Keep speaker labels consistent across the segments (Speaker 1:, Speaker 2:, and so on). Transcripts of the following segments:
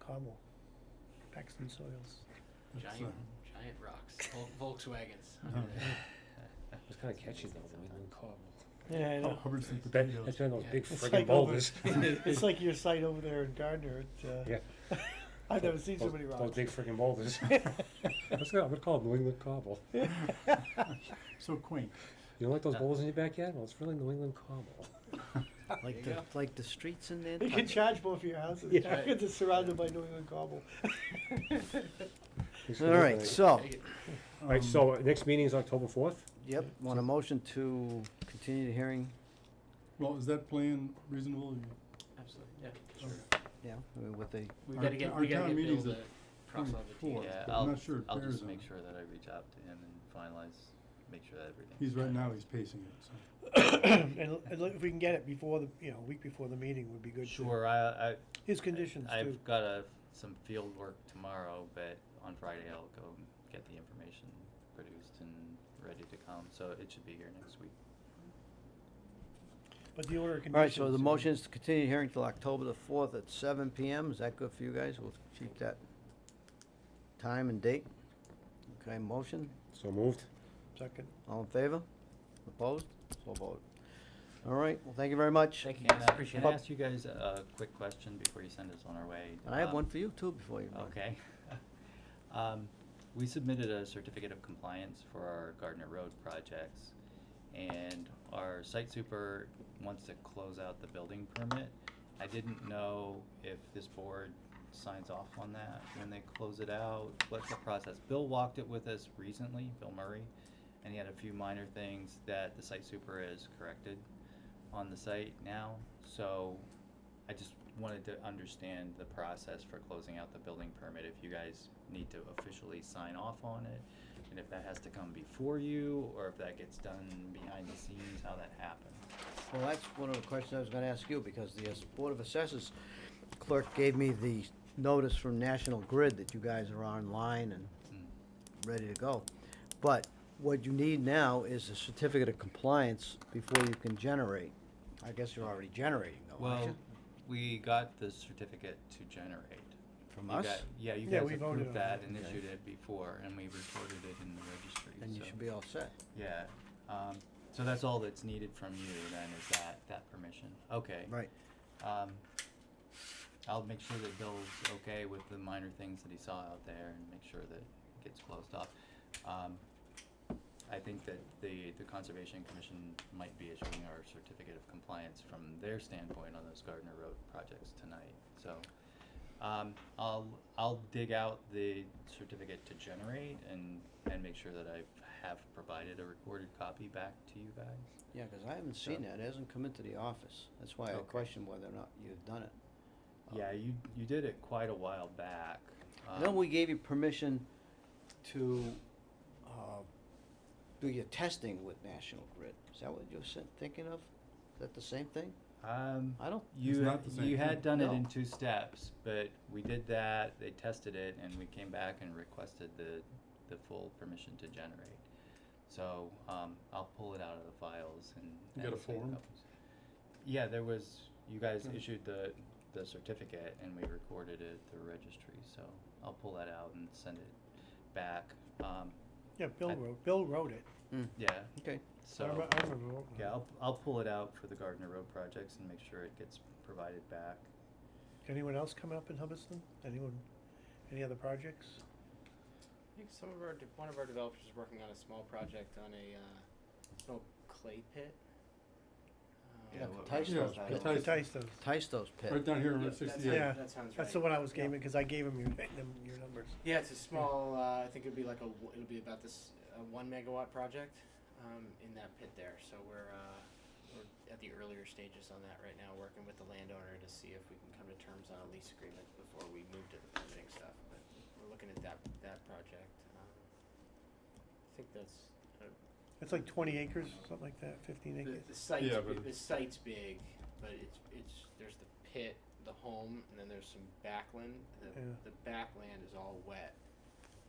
Speaker 1: Pablo, Paxton Soils.
Speaker 2: Giant, giant rocks, Vol- Volkswagens.
Speaker 3: No.
Speaker 4: It was kind of catchy though, the Windland Cobble.
Speaker 1: Yeah, I know.
Speaker 3: Oh, Hubbard's and
Speaker 4: That,
Speaker 3: potatoes.
Speaker 4: that's one of those
Speaker 2: Yeah.
Speaker 4: big
Speaker 1: It's
Speaker 4: Oh, friggin'
Speaker 1: like over-
Speaker 4: boulders.
Speaker 1: It's like your site over there in Gardner. It, uh,
Speaker 4: Yeah. Oh,
Speaker 1: I've never seen so
Speaker 4: Those-
Speaker 1: many
Speaker 4: Those
Speaker 1: rocks.
Speaker 4: big friggin' boulders. That's good, I'm gonna call it New England Cobble.
Speaker 3: So quaint.
Speaker 4: You don't like those boulders in your backyard? Well, it's really New England Cobble.
Speaker 2: There
Speaker 5: Like
Speaker 2: you
Speaker 5: the,
Speaker 2: go.
Speaker 5: like the streets in
Speaker 1: You can
Speaker 5: Nantucket.
Speaker 1: charge both of your houses.
Speaker 4: Yeah.
Speaker 2: Right.
Speaker 1: It's surrounded by New England cobble.
Speaker 4: Thanks for
Speaker 5: All right,
Speaker 4: listening.
Speaker 5: so,
Speaker 2: Take it.
Speaker 4: All
Speaker 3: um,
Speaker 4: right, so uh, next meeting is October fourth?
Speaker 5: yep, want a motion to continue the hearing?
Speaker 3: Well, is that plan reasonable? uh,
Speaker 2: Absolutely, yeah.
Speaker 3: Sure.
Speaker 5: Yeah, I mean, with the,
Speaker 2: We
Speaker 3: Our
Speaker 2: gotta
Speaker 3: t-
Speaker 2: get,
Speaker 3: our
Speaker 2: we gotta
Speaker 3: town
Speaker 2: get Bill
Speaker 3: meeting's
Speaker 2: to
Speaker 3: at
Speaker 2: cross all the
Speaker 3: Four,
Speaker 2: T's.
Speaker 6: Yeah,
Speaker 3: but I'm
Speaker 6: I'll,
Speaker 3: not sure it
Speaker 6: I'll
Speaker 3: bears
Speaker 6: just
Speaker 3: on
Speaker 6: make
Speaker 3: it.
Speaker 6: sure that I reach out to him and finalize, make sure that everything.
Speaker 3: He's right now, he's pacing it, so.
Speaker 1: and, and look, if we can get it before the, you know, a week before the meeting would be good. too.
Speaker 6: Sure, I, I.
Speaker 1: His conditions
Speaker 6: I've
Speaker 1: too.
Speaker 6: got a, some field work tomorrow, but on Friday I'll go and get the information produced and ready to come, so it should be here next week.
Speaker 1: But the order of
Speaker 5: all right,
Speaker 1: conditions.
Speaker 5: so the
Speaker 1: uh,
Speaker 5: motion is to continue the hearing till October the fourth at seven PM. Is that good for you guys? We'll keep that time and date. Okay, motion,
Speaker 4: So moved.
Speaker 1: Second.
Speaker 5: all in favor? Opposed? So voted. All right, well, thank you very much.
Speaker 2: Thank you,
Speaker 6: And,
Speaker 2: guys,
Speaker 6: uh,
Speaker 2: appreciate
Speaker 6: Can I
Speaker 2: it.
Speaker 6: ask you guys a quick question before you send us on our way?
Speaker 5: And I have
Speaker 6: Um,
Speaker 5: one for you too before you. go.
Speaker 6: Okay. Um, we submitted a certificate of compliance for our Gardner Road projects. And our site super wants to close out the building permit. I didn't know if this board signs off on that when they close it out. What's the process? Bill walked it with us recently, Bill Murray, and he had a few minor things that the site super has corrected on the site now. So I just wanted to understand the process for closing out the building permit, if you guys need to officially sign off on it, and if that has to come before you, or if that gets done behind the scenes, how that happens.
Speaker 5: Well, that's one of the questions I was gonna ask you, because the uh, Board of Assessors clerk gave me the notice from National Grid that you guys are online and ready to go. But what you need now is a certificate of compliance before you can generate. I guess you're already generating though, aren't
Speaker 6: Well,
Speaker 5: you?
Speaker 6: we got the certificate to generate.
Speaker 5: From
Speaker 6: You
Speaker 5: us?
Speaker 6: got- Yeah, you
Speaker 1: Yeah,
Speaker 6: guys
Speaker 1: we voted
Speaker 6: approved
Speaker 1: on
Speaker 6: that
Speaker 1: it.
Speaker 6: and
Speaker 5: Okay.
Speaker 6: issued it before, and we recorded it in the registry, so.
Speaker 5: And you should be all set.
Speaker 6: Yeah, um, so that's all that's needed from you then, is that, that permission, okay.
Speaker 5: Right.
Speaker 6: Um, I'll make sure that Bill's okay with the minor things that he saw out there and make sure that it gets closed off. Um, I think that the, the Conservation Commission might be issuing our certificate of compliance from their standpoint on those Gardner Road projects tonight, so. Um, I'll, I'll dig out the certificate to generate and, and make sure that I have provided a recorded copy back to you guys.
Speaker 5: Yeah, because I haven't seen
Speaker 6: So-
Speaker 5: that. It hasn't come into the office. That's why I
Speaker 6: Okay.
Speaker 5: questioned whether or not you've done it.
Speaker 6: Yeah, you, you did it quite a while back.
Speaker 5: I know
Speaker 6: um,
Speaker 5: we gave you permission to uh, do your testing with National Grid. Is that what you're sen- thinking of? Is that the same thing?
Speaker 6: Um,
Speaker 5: I don't,
Speaker 3: It's
Speaker 6: you,
Speaker 3: not the same
Speaker 6: you had
Speaker 3: thing.
Speaker 6: done it
Speaker 5: No.
Speaker 6: in two steps, but we did that, they tested it, and we came back and requested the, the full permission to generate. So, um, I'll pull it out of the files and.
Speaker 3: You got a
Speaker 6: and see if
Speaker 3: form?
Speaker 6: that was- Yeah, there was, you guys
Speaker 3: Hmm.
Speaker 6: issued the, the certificate and we recorded it at the registry, so I'll pull that out and send it back. Um,
Speaker 1: Yeah, Bill
Speaker 6: I-
Speaker 1: wrote, Bill wrote it.
Speaker 5: Hmm.
Speaker 6: yeah,
Speaker 5: okay.
Speaker 1: I
Speaker 6: so.
Speaker 1: remember, I remember voting on
Speaker 6: Yeah,
Speaker 1: it.
Speaker 6: I'll, I'll pull it out for the Gardner Road projects and make sure it gets provided back.
Speaker 1: Anyone else coming up in Hubbardston? Anyone, any other projects?
Speaker 2: I think some of our, de- one of our developers is working on a small project on a, uh, little clay pit. Um,
Speaker 5: Yeah,
Speaker 6: what we-
Speaker 5: Tyson
Speaker 3: Yeah,
Speaker 5: was
Speaker 3: the
Speaker 5: right.
Speaker 3: Tyson-
Speaker 1: Tyson.
Speaker 5: Tystos
Speaker 3: Right
Speaker 5: pit.
Speaker 3: down here on Route
Speaker 2: yeah, that sounds-
Speaker 3: sixty-eight.
Speaker 1: Yeah.
Speaker 2: That sounds right.
Speaker 1: That's the one I was
Speaker 2: Yeah.
Speaker 1: gaming, cause I gave him your, them- your numbers.
Speaker 2: Yeah, it's a small. Uh, I think it'd be like a. w- It'll be about this uh, one megawatt project um, in that pit there. So we're uh, we're at the earlier stages on that right now, working with the landowner to see if we can come to terms on a lease agreement before we move to the permitting stuff. But we're looking at that that project. Um, I think that's uh,
Speaker 1: It's like twenty acres, something like that, fifteen
Speaker 2: the,
Speaker 1: acres.
Speaker 2: the site.
Speaker 3: Yeah, but-
Speaker 2: the site's big, but it's it's there's the pit, the home, and then there's some backland. The,
Speaker 1: Yeah.
Speaker 2: the backland is all wet,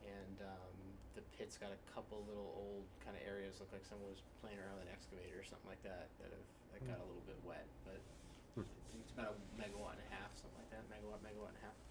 Speaker 2: and um, the pit's got a couple little old kind of areas look like someone was playing around with an excavator or something like that that have that got a little bit wet. But
Speaker 4: Hmm.
Speaker 2: I think it's about a megawatt and a half, something like that. Megawatt, megawatt and a half.